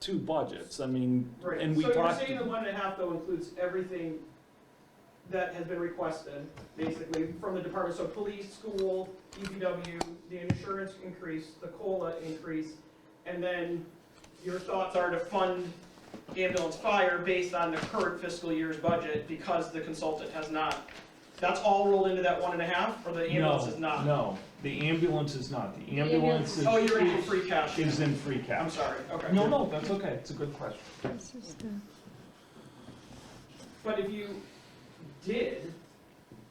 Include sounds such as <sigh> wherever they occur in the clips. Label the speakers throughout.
Speaker 1: two budgets, I mean,
Speaker 2: Right.
Speaker 1: and we
Speaker 2: So you're
Speaker 1: talked.
Speaker 2: saying the one and a half though includes everything that has been requested, basically, from the department, so police, school, DPW, the insurance increase, the COLA increase, and then your thoughts are to fund ambulance fire based on the current fiscal year's budget because the consultant has not. That's all rolled into that one and a half, or the ambulance is
Speaker 1: No,
Speaker 2: not?
Speaker 1: no, the ambulance is not, the
Speaker 3: ambulance
Speaker 1: ambulance is.
Speaker 2: Oh, you're in free cash,
Speaker 1: Is in free cash.
Speaker 2: I'm sorry, okay.
Speaker 1: No, no, that's okay, it's a good question.
Speaker 3: This is the,
Speaker 2: But if you did,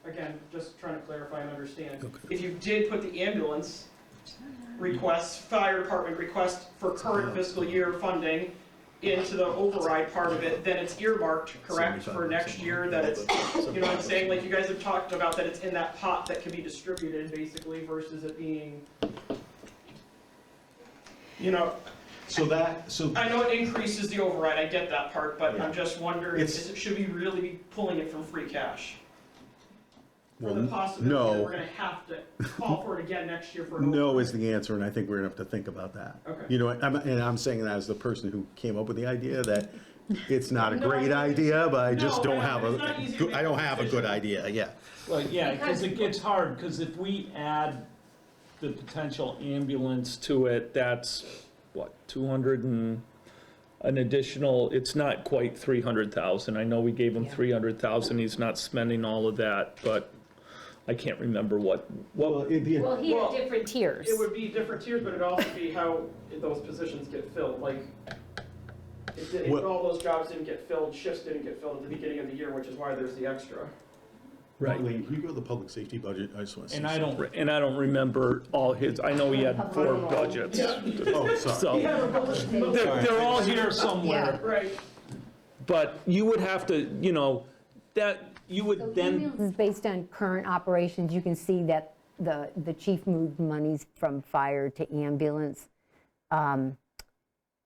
Speaker 2: again, just trying to clarify and understand, if you did put the ambulance request, fire department request for current fiscal year funding into the override part of it, then it's earmarked, correct, for next year, that it's, you know what I'm saying? Like, you guys have talked about that it's in that pot that can be distributed, basically, versus it being, you know,
Speaker 4: So that, so
Speaker 2: I know it increases the override, I get that part, but I'm just wondering,
Speaker 4: It's-
Speaker 2: is it, should we really be pulling it from free cash? For
Speaker 5: Well,
Speaker 2: the
Speaker 5: n-
Speaker 2: possibility
Speaker 5: no.
Speaker 2: that we're gonna have to call for it again next year for. an
Speaker 5: No
Speaker 2: override?
Speaker 5: is the answer, and I think we're gonna have to think about that.
Speaker 2: Okay.
Speaker 5: You know, and I'm, and I'm saying that as the person who came up with the idea, that it's not a
Speaker 2: No,
Speaker 5: great
Speaker 2: I-
Speaker 5: idea, but I just
Speaker 2: No,
Speaker 5: don't
Speaker 2: I-
Speaker 5: have
Speaker 2: it's not easy
Speaker 5: a,
Speaker 2: to
Speaker 5: good-
Speaker 2: make
Speaker 5: I don't have a good
Speaker 2: decisions.
Speaker 5: idea, yeah.
Speaker 1: Well, yeah, because
Speaker 3: Because-
Speaker 1: it gets hard, because if we add the potential ambulance to it, that's, what, 200 and, an additional, it's not quite 300,000. I know we gave him 300,000, he's not spending all of that, but I can't remember what,
Speaker 5: Well,
Speaker 1: what,
Speaker 5: it,
Speaker 3: well, he had
Speaker 2: Well,
Speaker 3: different tiers.
Speaker 2: It would be different tiers, but it'd also be how those positions get filled, like, if, if
Speaker 5: Well-
Speaker 2: all those jobs didn't get filled, shifts didn't get filled at the beginning of the year, which is why there's the extra.
Speaker 1: right.
Speaker 5: Lee, can you go to the public safety budget, I just wanna see.
Speaker 1: And I
Speaker 5: something.
Speaker 1: don't, and I don't remember all his, I know he had four budgets.
Speaker 5: Oh, sorry.
Speaker 1: So, they're, they're all here somewhere.
Speaker 2: Right,
Speaker 1: But you would have to, you know, that, you would then,
Speaker 6: This is based on current operations. You can see that the, the chief moved monies from fire to ambulance. Um,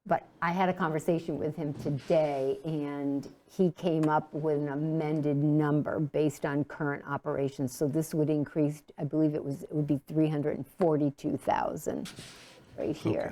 Speaker 6: But I had a conversation with him today, and he came up with an amended number based on current operations. So this would increase, I believe it was, it would be 342,000 right here.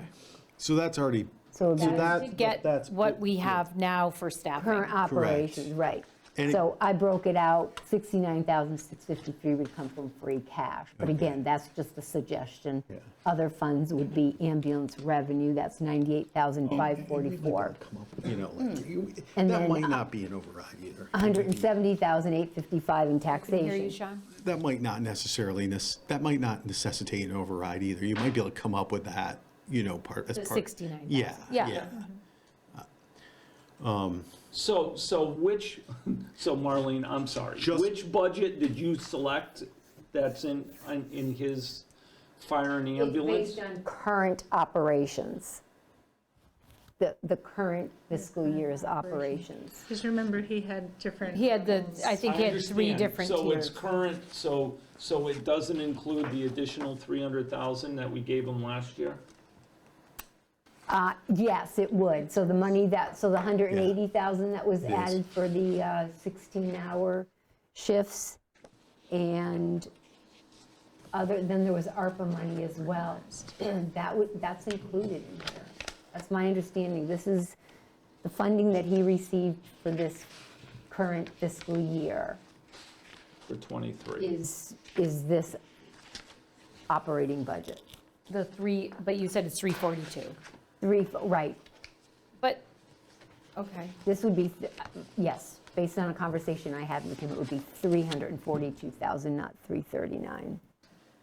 Speaker 4: so that's already
Speaker 6: So it would be
Speaker 4: that
Speaker 3: To get
Speaker 4: that's-
Speaker 3: what we have now for staffing.
Speaker 6: current operations, right.
Speaker 4: And it-
Speaker 6: So I broke it out, 69,653 would come from free cash. But again, that's just a suggestion. Other funds would be ambulance revenue, that's 98,544.
Speaker 4: come up, you know,
Speaker 3: Hmm.
Speaker 4: like, you-
Speaker 6: And
Speaker 4: that
Speaker 6: then,
Speaker 4: might
Speaker 6: uh,
Speaker 4: not be an override either.
Speaker 6: 170,855 in
Speaker 3: Can you hear you,
Speaker 6: taxation.
Speaker 3: Sean?
Speaker 4: That might not necessarily, nes- that might not necessitate an override either. You might be able to come up with that, you know, part, as
Speaker 3: The
Speaker 4: part.
Speaker 3: 69,000.
Speaker 4: Yeah,
Speaker 3: Yeah.
Speaker 4: yeah.
Speaker 1: so, so which, so Marlene, I'm sorry.
Speaker 4: Just-
Speaker 1: Which budget did you select that's in, in- in his fire and ambulance?
Speaker 6: Based on current operations, the, the current fiscal year's operations.
Speaker 7: Just remember, he had different.
Speaker 3: He had the, I think he had three
Speaker 1: understand.
Speaker 3: different
Speaker 1: So it's
Speaker 3: tiers.
Speaker 1: current, so, so it doesn't include the additional 300,000 that we gave him last year?
Speaker 6: Uh, Yes, it would. So the money that, so the 180,000 that was
Speaker 4: is.
Speaker 6: added for the uh, 16-hour shifts, and other, then there was ARPA money as well. <clears throat> That would, that's included in here. That's my understanding. This is the funding that he received for this current fiscal year
Speaker 1: For 23?
Speaker 6: is, is this operating budget.
Speaker 3: The three, but you said it's 342.
Speaker 6: Three, right,
Speaker 3: But, okay.
Speaker 6: This would be, th- yes, based on a conversation I had with him, it would be 342,000, not 339.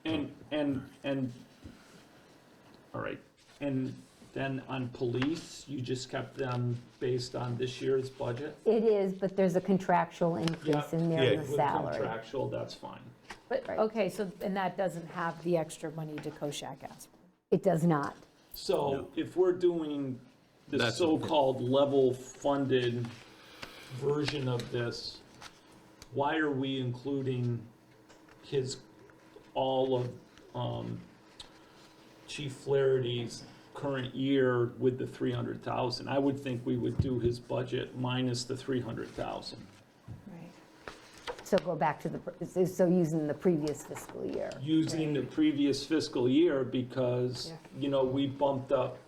Speaker 1: And, and, and, all right, and then on police, you just kept them based on this year's budget?
Speaker 6: It is, but there's a contractual increase
Speaker 1: Yeah.
Speaker 6: in there in
Speaker 4: Yeah.
Speaker 6: the
Speaker 1: With
Speaker 6: salary.
Speaker 1: Contractual, that's fine.
Speaker 3: But,
Speaker 6: Right.
Speaker 3: okay, so, and that doesn't have the extra money to Koshak asked.
Speaker 6: It does not.
Speaker 1: So if we're doing the
Speaker 5: That's-
Speaker 1: so-called level funded version of this, why are we including his, all of um, Chief Flaherty's current year with the 300,000? I would think we would do his budget minus the 300,000.
Speaker 3: Right.
Speaker 6: So go back to the, pr- so using the previous fiscal year.
Speaker 1: using the previous fiscal year because, you know, we bumped up